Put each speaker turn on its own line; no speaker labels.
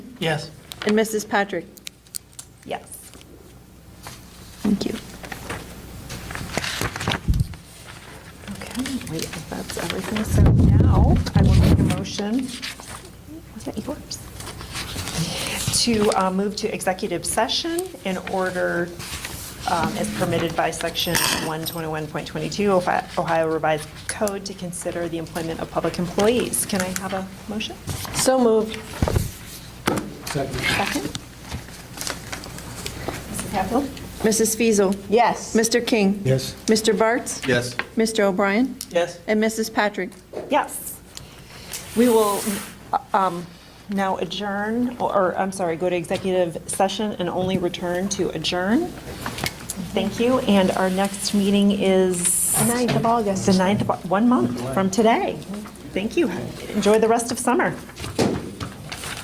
Yes.
And Mrs. Patrick?
Yes.
Thank you.
Okay, wait, if that's everything. So now I will make a motion. Was that yours? To uh, move to executive session in order, um, as permitted by Section 121.22 of Ohio Revised Code, to consider the employment of public employees. Can I have a motion?
So moved.
Second? Mrs. Hatfield?
Mrs. Fiesel.
Yes.
Mr. King?
Yes.
Mr. Bartz?
Yes.
Mr. O'Brien?
Yes.
And Mrs. Patrick?
Yes. We will um, now adjourn, or I'm sorry, go to executive session and only return to adjourn. Thank you, and our next meeting is? The 9th of August. The 9th, of Au- one month from today. Thank you. Enjoy the rest of summer.